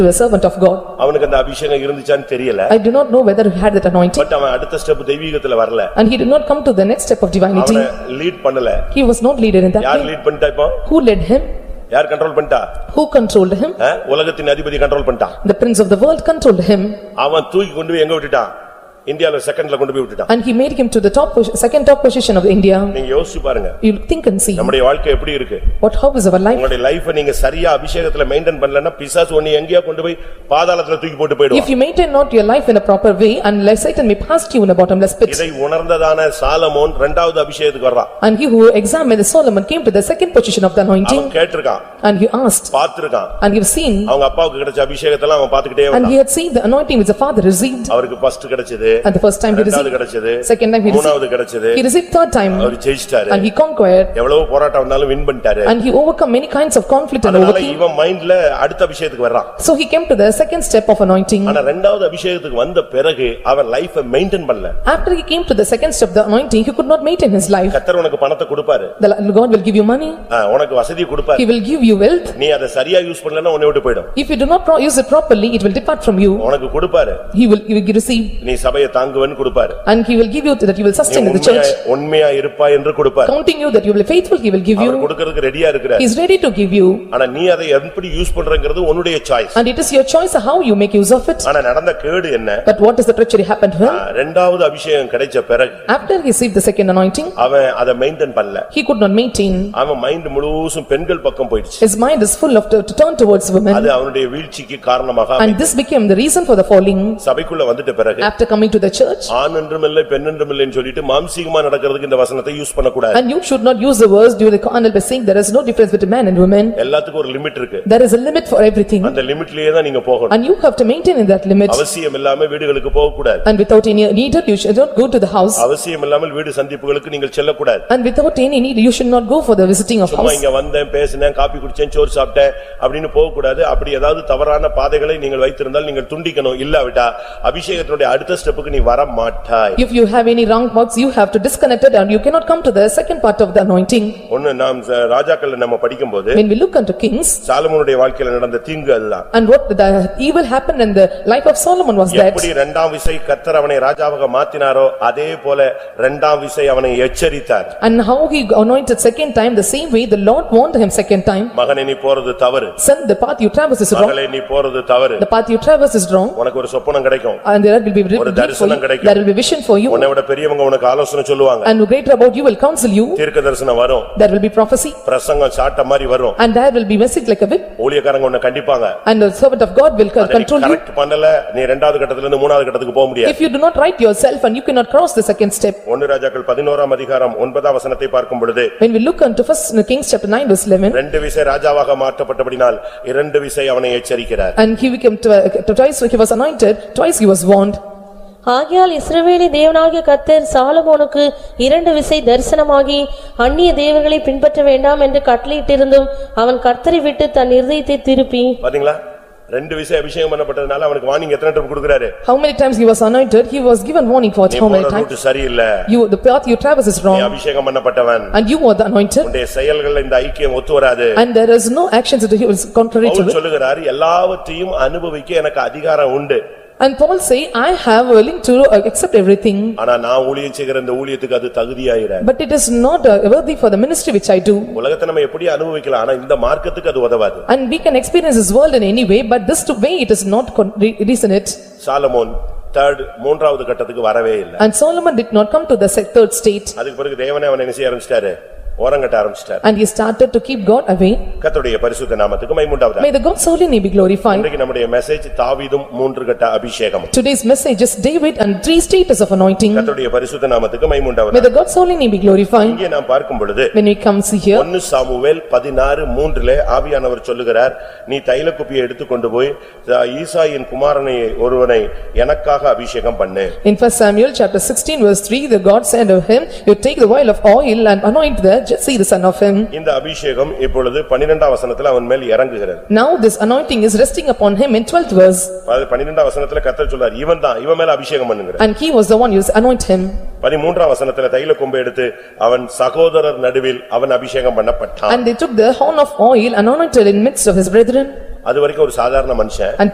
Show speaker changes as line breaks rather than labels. a servant of God.
அவனுக்கு அந்த அபிஷேகம் இருந்துச்சான்னு தெரியல
I do not know whether he had that anointing
but அவன் அடுத்த ஸ்டெப் தெய்வீகத்துல வரல
and he did not come to the next step of divinity.
அவனை lead பண்ணல
He was not leader in that
யார்
way.
லீட் பண்ணிட்டா இப்போ
Who led him?
யார் control பண்ணிட்டா
Who controlled him?
ஆ? உலகத்தின் அதிபதி கண்ட்ரோல் பண்ணிட்டான்
The prince of the world controlled him
அவன் தூக்கி கொண்டு போய் எங்க விட்டுட்டான் இந்தியால செகண்ட்ல கொண்டு போய் விட்டுட்டான்
and he made him to the top, pos- second top position of India.
நீங்க யோசிச்சு பாருங்க
You think and see,
நம்முடைய வாழ்க்கை எப்படி இருக்கு
what hope is our life?
உங்களுடைய லைஃப நீங்க சரியா அபிஷேகத்துல மெயின்டைன் பண்ணலன்னா பிசாசு ஒண்ணு எங்கேயா கொண்டு போய் பாதாளத்துல தூக்கி போட்டு
If
போயிடுவான்
you maintain not your life in a proper way, unless Satan may pass you in a bottomless pit.
இதை உணர்ந்ததான சாலமோன் இரண்டாவது அபிஷேகத்துக்கு வர்றான்
And he who examined Solomon came to the second position of the
அவன்
anointing
கேட்டிருக்கான்
and he asked
பார்த்திருக்கான்
and he have seen
அவங்க அப்பாவுக்கு கிடைச்ச அபிஷேகத்தெல்லாம் அவன் பாத்துக்கிட்டே
and he
வந்தான்
had seen the anointing which the father received
அவருக்கு ஃபர்ஸ்ட் கிடைச்சது
and the first time he
இரண்டாவது
received,
கிடைச்சது
second time he
மூணாவது
received,
கிடைச்சது
he received third time
அவர் ஜெயிச்சிட்டாரு
and he conquered
எவ்வளவு போராட்டம் வந்தாலும் வின் பண்ணிட்டாரு
and he overcome many kinds of conflict and
அதனால
overcame.
இவன் மைண்ட்ல அடுத்த அபிஷேகத்துக்கு வர்றான்
So he came to the second step of anointing.
ஆனா ரெண்டாவது அபிஷேகத்துக்கு வந்த பிறகு அவன் லைஃப மெயின்டைன் பண்ணல
After he came to the second step, the anointing, he could not maintain his life.
கத்தர் உனக்கு பணத்தை கொடுப்பாரு
The God will give you money,
ஆ, உனக்கு வசதியை கொடுப்பாரு
he will give you wealth.
நீ அதை சரியா யூஸ் பண்ணலன்னா உன்னை விட்டு போயிடும்
If you do not pro- use it properly, it will depart from you.
உனக்கு கொடுப்பாரு
He will, you will receive
நீ சபையை தாங்குவேன்னு கொடுப்பாரு
and he will give you that you will
நீ
sustain in the
உண்மையா
church.
உண்மையா இருப்பா என்று கொடுப்பாரு
Counting you that you will be faithful, he will give
our
you.
கொடுக்கறதுக்கு ரெடியா இருக்கிற
He is ready to give you
ஆனா நீ அதை எப்படி யூஸ் பண்றங்கிறது உன்னுடைய choice
and it is your choice how you make use of it.
ஆனா நடந்த கேடு என்ன
But what is the treachery happened to
ah,
him?
ரெண்டாவது அபிஷேகம் கிடைச்ச பிறகு
After he received the second anointing,
அவன் அதை மெயின்டைன் பண்ணல
he could not maintain.
அவன் மைண்ட் முழுசும் பெண்கள் பக்கம் போயிடுச்சு
His mind is full of to to turn towards women
அது அவனுடைய வீழ்ச்சிக்கு காரணமாக அமைந்தது.
and this became the reason for the falling.
சபைக்குள்ள வந்துட்ட பிறகு
After coming to the church
ஆண் என்றும் இல்லை பெண் என்றும் இல்லைன்னு சொல்லிட்டு மாம்சீகமா நடக்கிறதுக்கு இந்த வசனத்தை use பண்ணக்கூடாது
and you should not use the words during the carnal by saying there is no difference between man and woman.
எல்லாத்துக்கும் ஒரு லிமிட் இருக்கு
There is a limit for everything
அந்த லிமிட்லயே தான் நீங்க போகணும்
and you have to maintain in that limit
அவசியம் இல்லாம வீடுகளுக்கு போகக்கூடாது
and without any need you should not go to the house
அவசியம் இல்லாமல் வீடு சந்திப்புகளுக்கு நீங்கள் செல்லக்கூடாது
and without any need you should not go for the visiting of
சும்மா
house.
இங்க வந்தேன் பேசினேன் காப்பி குடிச்சேன் சோறு சாப்பிட்டேன் அப்படின்னு போகக்கூடாது அப்படி ஏதாவது தவறான பாதைகளை நீங்கள் வைத்திருந்தால் நீங்கள் துண்டிக்கணும் இல்லாவிட்டா அபிஷேகத்தினுடைய அடுத்த ஸ்டெப்புக்கு நீ வர மாட்டாய்
If you have any wrong thoughts, you have to disconnect it and you cannot come to the second part of the anointing.
ஒண்ணு நாம் ச- ராஜாக்கள்ல நம்ம படிக்கும்போது
When we look unto kings
சாலமோனுடைய வாழ்க்கையில நடந்த தீங்கு அதுதான்
and what the evil happened in the life of Solomon was that
எப்படி இரண்டாம் விசை கத்தர் அவனை ராஜாவாக மாத்தினாரோ அதே போல இரண்டாம் விசை அவனை எச்சரித்தார்
and how he anointed second time, the same way the Lord warned him second time.
மகனை நீ போறது தவறு
Son, the path you traverse is wrong,
மகளே நீ போறது தவறு
the path you traverse is wrong
உனக்கு ஒரு சொப்பனம் கிடைக்கும்
and there will be
ஒரு
relief for
தரிசனம்
you,
கிடைக்கும்.
there will be vision for you
உன்னை விட பெரியவங்க உனக்கு ஆலோசனை சொல்லுவாங்க
and greater about you will counsel you,
தீர்க்க தரிசனம் வரும்
there will be prophecy
பிரசங்கம் சாட்ட மாதிரி வரும்
and there will be message like a whip
ஊழியக்காரங்க உன்னை கண்டிப்பாங்க
and the servant of God will co-
அதை நீ
control you.
கரெக்ட் பண்ணல நீ இரண்டாவது கட்டத்துல இருந்து மூணாவது கட்டத்துக்கு போக முடியாது
If you do not right yourself and you cannot cross the second step.
ஒன்னு ராஜாக்கள் பதினோராம் அதிகாரம் ஒன்பதாம் வசனத்தை பார்க்கும் பொழுது
When we look unto first uh, Kings chapter nine verse eleven,
ரெண்டு விசை ராஜாவாக மாற்றப்பட்டபடினால் இரண்டு விசை அவனை எச்சரிக்கிறார்
and he became twi- uh, twice he was anointed, twice he was warned.
ஆகையால் இஸ்ரவேலி தேவனாகிய கர்த்தர் சாலமோனுக்கு இரண்டு விசை தரிசனமாகி அந்நிய தேவர்களை பின்பற்ற வேண்டாம் என்று கட்டளையிட்டிருந்தும் அவன் கர்த்தரை விட்டு தன் இருதயத்தை திருப்பி
பாத்தீங்களா ரெண்டு விசை அபிஷேகம் பண்ணப்பட்டதுனால அவனுக்கு வார்னிங் எத்தனை டைம் கொடுக்கறாரு
How many times he was anointed, he was given warning for it,
நீ
how
போற
many times?
ரூட் சரியில்லை
You, the path you traverse is
நீ
wrong,
அபிஷேகம் பண்ணப்பட்டவன்
and you are the anointed,
உன்னுடைய செயல்கள் இந்த ஐக்கியம் ஒத்து வராது
and there is no actions that he was contrary to
Pavul
it.
சொல்லுகிறார் எல்லாவற்றையும் அனுபவிக்க எனக்கு அதிகாரம் உண்டு
And Paul say, "I have willing to uh, accept everything,
ஆனா நான் ஊழியம் செய்கிற இந்த ஊழியத்துக்கு அது தகுதியாயிர
but it is not uh, worthy for the ministry which I do."
உலகத்தை நம்ம எப்படி அனுபவிக்கலாம் ஆனா இந்த மார்க்கத்துக்கு அது உதவாது
And we can experience this world in any way, but this to way it is not con- re- reason it.
Solomon third மூன்றாவது கட்டத்துக்கு வரவே இல்லை
And Solomon did not come to the se- third state,
அதுக்கு பிறகு தேவனே அவனை என்ன செய்ய ஆரம்பிச்சிட்டாரு ஓரங்கட்ட ஆரம்பிச்சிட்டாரு
and he started to keep God away.
கர்த்தருடைய பரிசுத்த நாமத்துக்கு மைமுண்டாவது
May the God's holy name be glorified.
இன்றைக்கு நம்முடைய மெசேஜ் தாவீதும் மூன்று கட்ட அபிஷேகம்
Today's message is David and three status of anointing.
கர்த்தருடைய பரிசுத்த நாமத்துக்கு மைமுண்டாவது
May the God's holy name be glorified.
இங்கே நாம் பார்க்கும் பொழுது
When we come see here,
ஒன்னு சாமுவேல் பதினாறு மூன்றிலே ஆவியானவர் சொல்லுகிறார் நீ தைல குப்பியை எடுத்துக்கொண்டு போய் தா- ஈசாயின் குமாரனை ஒருவனை எனக்காக அபிஷேகம் பண்ணு
in first Samuel chapter sixteen verse three, the God said of him, "You take the oil of oil and anoint the Jesse the son of him."
இந்த அபிஷேகம் இப்பொழுது பனிரெண்டாம் வசனத்துல அவன் மேல் இறங்குகிறது
Now this anointing is resting upon him in twelfth verse,
அது பனிரெண்டாம் வசனத்துல கர்த்தர் சொல்றார் இவன் தான் இவன் மேல அபிஷேகம் பண்ணுங்கிற
and he was the one who anointed him.
பதிமூன்றாம் வசனத்துல தைல கொம்பை எடுத்து அவன் சகோதரர் நடுவில் அவன் அபிஷேகம் பண்ணப்பட்டான்
And they took the horn of oil and anointed in midst of his brethren.
அது வரைக்கும் ஒரு சாதாரண மனுஷன்
And